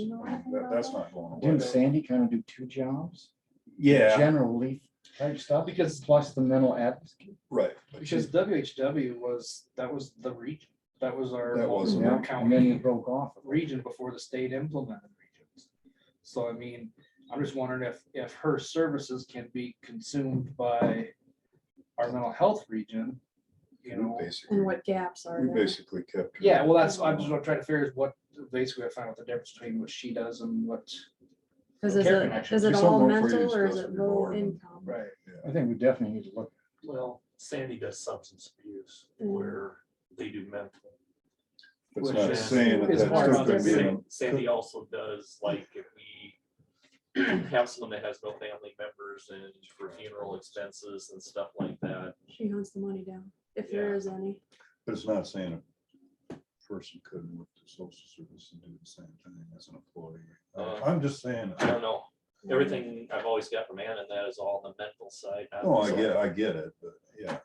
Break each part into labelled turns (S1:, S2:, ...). S1: you know anything
S2: That-
S1: about
S2: That's
S1: that?
S2: not going away.
S3: Didn't Sandy kind of do two jobs?
S2: Yeah,
S3: General leaf type stuff,
S4: Because-
S3: plus the mental advocacy.
S2: right. but
S4: Because
S2: she-
S4: WHW was, that was the region, that was our.
S2: That was
S4: our
S3: Yeah, and then he
S4: County
S3: broke off.
S4: region before the state implemented regions. So I mean, I'm just wondering if, if her services can be consumed by our mental health region, you know?
S2: We basically-
S1: And what gaps are
S2: we
S1: there?
S2: basically kept. her-
S4: Yeah, well, that's, I'm just trying to figure is what, basically I found out the difference between what she does and what.
S1: Because is
S4: care
S1: it,
S4: connection.
S1: is it
S2: She's
S1: all
S2: on welfare
S1: mental
S2: use
S1: or is it
S2: doesn't
S1: low
S2: reward.
S1: income?
S4: Right.
S3: I think we definitely need to look.
S4: Well,
S5: Sandy does substance abuse
S1: Mm.
S5: where they do mental.
S2: It's
S4: which
S2: not
S5: is-
S2: saying that
S4: is
S2: that's
S4: more
S2: still gonna be,
S1: Yeah.
S5: Sa-
S2: an-
S5: Sandy also does, like, if we have someone that has no family members and for funeral expenses and stuff like that.
S1: She hunts the money down, if there
S5: Yeah.
S1: is any.
S2: but it's not saying a person couldn't work the social service and do the same thing as an employee.
S5: Uh,
S2: I'm just saying,
S5: I don't know, everything I've always got from Ann and that is all the mental side. not
S2: no, Oh, I
S5: the-
S2: get, I get it, but yeah.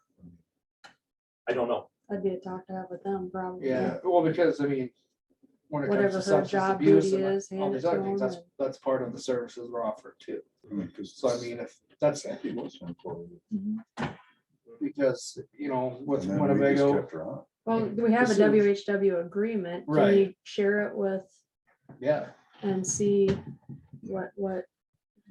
S5: I don't know,
S1: That'd be a talk to have with them, probably.
S4: yeah,
S2: Yeah.
S4: well, because I mean. When it comes
S1: Whatever
S4: to
S1: her
S4: substance
S1: job
S4: abuse
S1: duty
S4: and
S1: is,
S4: all
S1: hand
S4: these
S1: it
S4: other
S1: to
S4: things,
S1: 'em
S4: Oh, that's, that's part of the services we're offered too.
S2: I mean, 'cause
S4: So I mean, if that's
S2: Sandy was an employee.
S1: Mhm.
S4: because, you know, with
S2: and then we just
S4: Winnebago,
S2: kept her on.
S1: Well, we have a
S4: This is-
S1: WHW agreement. Can
S4: Right.
S1: you share it with
S4: yeah,
S1: and see what, what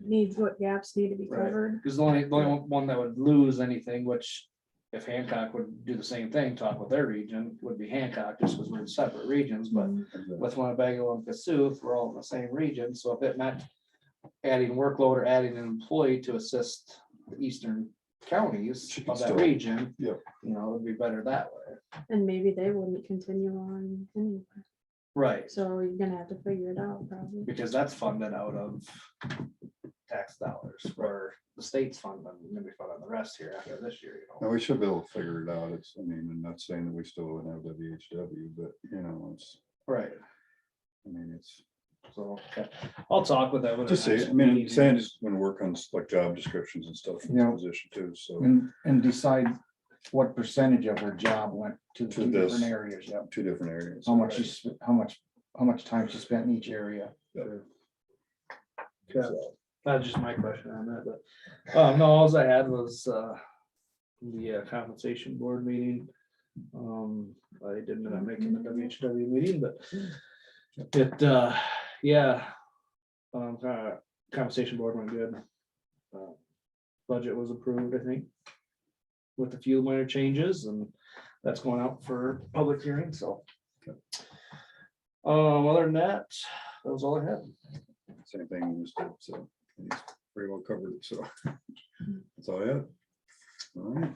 S1: needs, what gaps need to be
S4: Right.
S1: covered?
S4: because the only, the only one that would lose anything, which. If Hancock would do the same thing, talk with their region, would be Hancock, just because we're in separate regions, but
S1: Mhm.
S2: And then-
S4: with Winnebago and Cassuth, we're all in the same region, so if it meant adding workload or adding an employee to assist the eastern counties
S2: She could
S4: of that
S2: still-
S4: region.
S2: yeah.
S4: You know, it would be better that way.
S1: And maybe they wouldn't continue on anyway.
S4: Right.
S1: So you're gonna have to figure it out probably.
S4: Because that's funded out of tax dollars, where the state's funding, maybe funding the rest here after this year, you know.
S2: Now, we should be able to figure it out. It's, I mean, I'm not saying that we still wouldn't have WHW, but you know, it's,
S4: Right,
S2: I mean, it's.
S4: so, okay. I'll talk with them. at the
S2: Just say,
S4: next
S2: I mean,
S4: meeting.
S2: Sandy's gonna work on s- like job descriptions and stuff for
S3: Yeah. Mm.
S2: this position too, so
S3: And, and decide what percentage of her job went to the
S2: To
S3: two different
S2: this.
S3: areas, yeah.
S2: two different areas.
S3: How much she, sp- how much, how much time she spent in each area.
S4: Okay. That's just my question on that, but, um, no, alls I had was, uh, the uh, compensation board meeting. Um, I didn't end up making the WHW meeting, but it, uh, yeah. Um, uh, compensation board went good. Uh, Budget was approved, I think. With a few minor changes and that's going out for public hearing, so. Um, other than that, that was all I had.
S2: Same thing we just did, so he's pretty well covered, so. That's all I have. All right.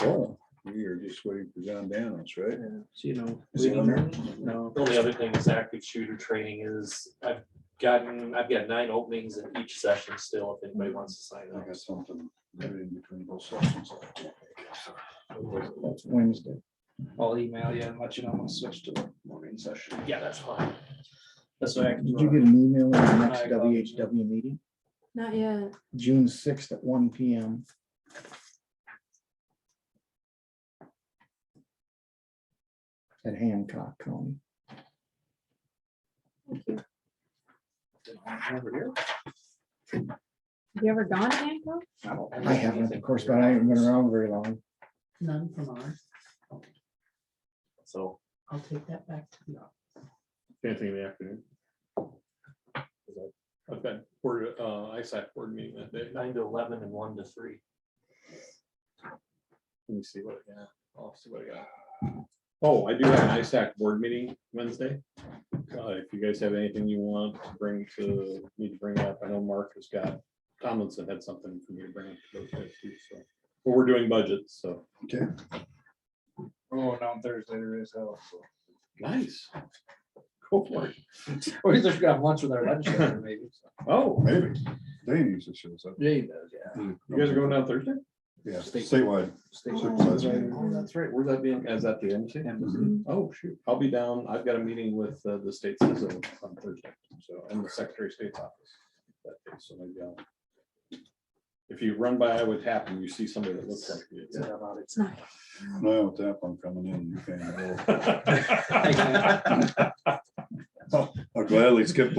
S2: So we are just waiting for John Danos, right?
S4: Yeah, So you know.
S2: Is it
S4: we
S2: on there?
S4: don't- No,
S5: the only other thing is active shooter training is, I've gotten, I've got nine openings in each session still, if anybody wants to sign
S2: I
S5: up.
S2: got something maybe in between both sessions. I can't make it, so.
S3: That's Wednesday.
S4: I'll email you and let you know when I switch to the morning session.
S5: Yeah, that's fine.
S4: That's what I
S3: Did you
S4: can.
S3: get an email on the next
S4: I got it.
S3: WHW meeting?
S1: Not yet.
S3: June sixth at one P M. At Hancock County.
S4: Over here.
S1: Have you ever gone to Hancock?
S4: don't
S3: I haven't, of course, but I haven't been around very long.
S6: None from ours.
S5: So.
S6: I'll take that back.
S7: Anything in the afternoon? I've got board, uh, ISAC board meeting that day. Let
S5: Nine to eleven and one to three.
S7: me see what, yeah, I'll see what I got. Oh, I do have an ISAC board meeting Wednesday. Uh, if you guys have anything you want to bring to, need to bring up, I know Mark has got, Tomlinson had something for me to bring up. to those guys too. So, But we're doing budgets, so.
S4: We're going down Oh, Thursday to raise hell. so.
S7: Nice. Go for it.
S4: Or he's just got lunch with our legislature maybe. so.
S7: Oh,
S2: Maybe. Dave usually shows up.
S4: Yeah, he does, yeah.
S7: you guys are going down Thursday?
S2: Yeah, statewide.
S4: Stay-
S2: Supervisor.
S7: Oh, that's right. Where's that being? Is that the embassy?
S1: Mhm.
S7: Oh, shoot. I'll be down. I've got a meeting with uh, the state citizen on Thursday, so, and the Secretary of State's office. that day, So maybe I'll. If you run by Iowa Tap and you see somebody that looks like you.
S4: Yeah, about it.
S1: It's not.
S2: No, with that one coming in, you can.
S4: Thank you.
S2: I'll gladly skip